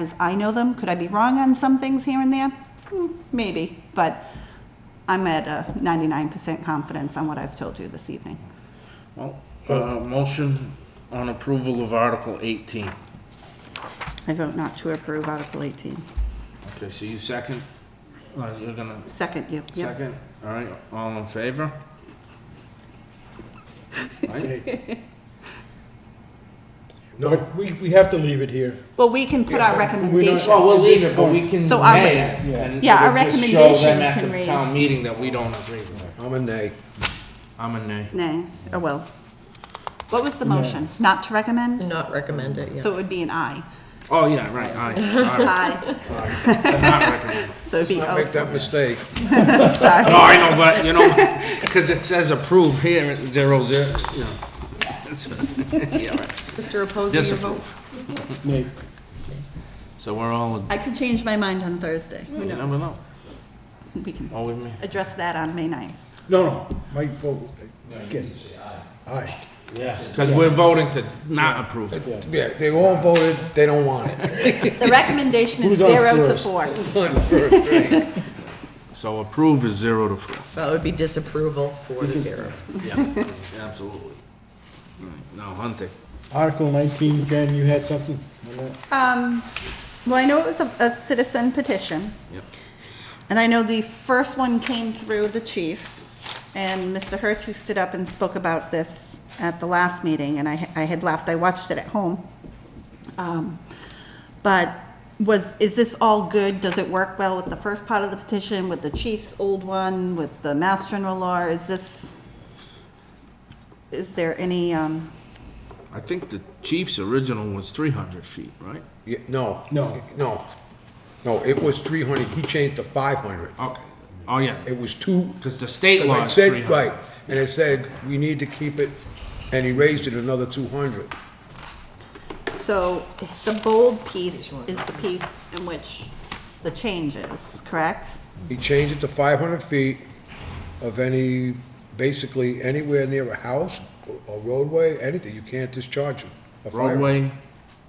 as I know them. Could I be wrong on some things here and there? Hmm, Maybe, but I'm at a 99% confidence on what I've told you this evening. Well, uh, motion on approval of Article 18. I vote not to approve Article 18. Okay, so you second? Uh, You're gonna Second, you. yep. second? All right, all in favor? Right? No, we, we have to leave it here. Well, we can put our recommendation. oh, Well, we'll leave it, but we can So our- nay it. and Yeah, our we'll just Show recommendation them at can the read- town meeting that we don't agree with it. I'm a nay. I'm a nay. Nay, or will. oh, What was the motion? Not to recommend? Not recommend it, yeah. So it would be an aye. Oh, yeah, right, aye, sorry. Aye, I'm not recommending. so it'd be Make oh, that mistake. No, sorry. I know, but, you know, because it says approve here, at zero, zero, you know. It's- Yeah, right. Mr. Opposing your vote? Disapprove. So we're all, I could change my mind on Thursday. Who you knows? never know. We can All with me. address that on May 9th. No, no, my vote. Again. Aye. Yeah. Because we're voting to not approve it. Yeah, they all voted, they don't want it. The recommendation is Who's on zero to first? four. So approve is zero to four. Well, it would be disapproval, four to zero. Yeah, absolutely. Right, Now hunting. Article 19, Jen, you had something on that? Um, well, I know it was a, a citizen petition. Yep. And I know the first one came through the chief, and Mr. Hertz, who stood up and spoke about this at the last meeting, and I, I had left, I watched it at home. Um, But was, is this all good? Does it work well with the first part of the petition, with the chief's old one, with the mass general law? Is this, is there any, um, I think the chief's original was three hundred feet, right? Yeah, No. No. No. No, it was three hundred, he changed to five hundred. Okay, oh yeah, It was two. because the state As I law is said, three hundred. Right, and it said, we need to keep it, and he raised it another two hundred. so the bold piece is the piece in which the change is, correct? He changed it to five hundred feet of any, basically anywhere near a house, a roadway, anything, you can't discharge it. A fire- Roadway,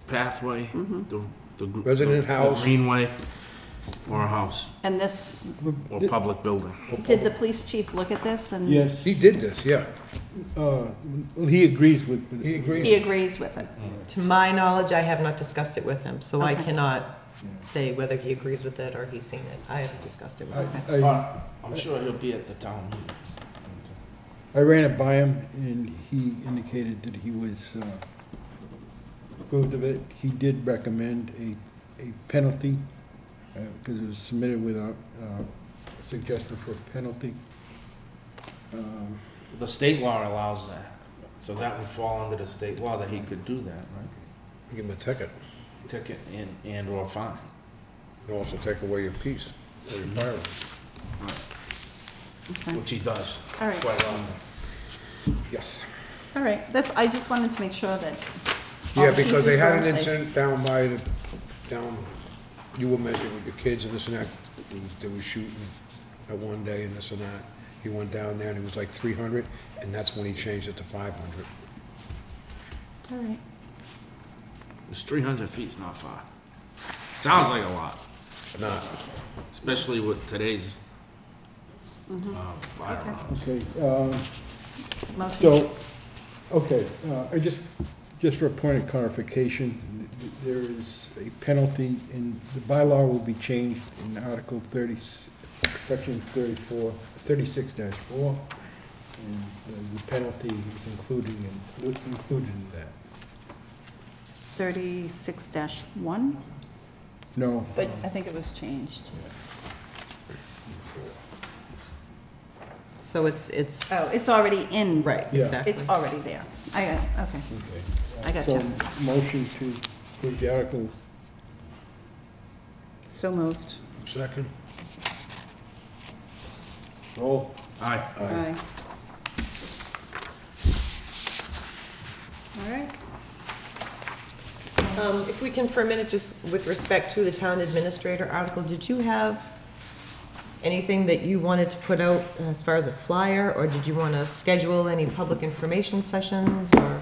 pathway, the, the. gr- Resident the house. Greenway, or a house, And this or public building. Did the police chief look at this and? Yes, He did this, yeah. uh, well, he agrees with, with He it. agrees. He agrees with it. To my knowledge, I have not discussed it with him, so I Okay. cannot say whether he agrees with it or he's seen it. I haven't discussed it with him. I, I'm sure he'll be at the town meeting. I ran it by him, and he indicated that he was uh, approved of it. He did recommend a, a penalty, because it was submitted without uh, suggestion for a penalty. Um, The state law allows that, so that would fall under the state law that he could do that, right? Give him a ticket. Ticket and, and or fine. It'll also take away your peace, or your firearm. Which he does. All right. Quite often. Yes. All right, that's, I just wanted to make sure that. all Yeah, the because they pieces were had an in place. incident down by, the down, you were mentioning with your kids and this and that, they was- they were shooting at one day and this and that. He went down there and it was like three hundred, and that's when he changed it to five hundred. All right. It's 300 feet's not far. Sounds like a lot, Not, especially with today's Mm-hmm. uh, firearms. Okay, um, Motion. So, okay, uh, I just, just for a point of clarification, th- there is a penalty, and the bylaw will be changed in Article 30, Section 34, 36-4, and uh, the penalty is included in, included in that. Thirty-six dash one, No, but I think it was changed. So it's, it's, Oh, it's already in. right, Yeah. exactly. It's already there. I, got okay. okay. I got So, you. motion to approve the article, So moved. second? roll. Aye. Aye. All right. Um, If we can for a minute, just with respect to the town administrator article, did you have anything that you wanted to put out as far as a flyer? Or did you want to schedule any public information sessions or?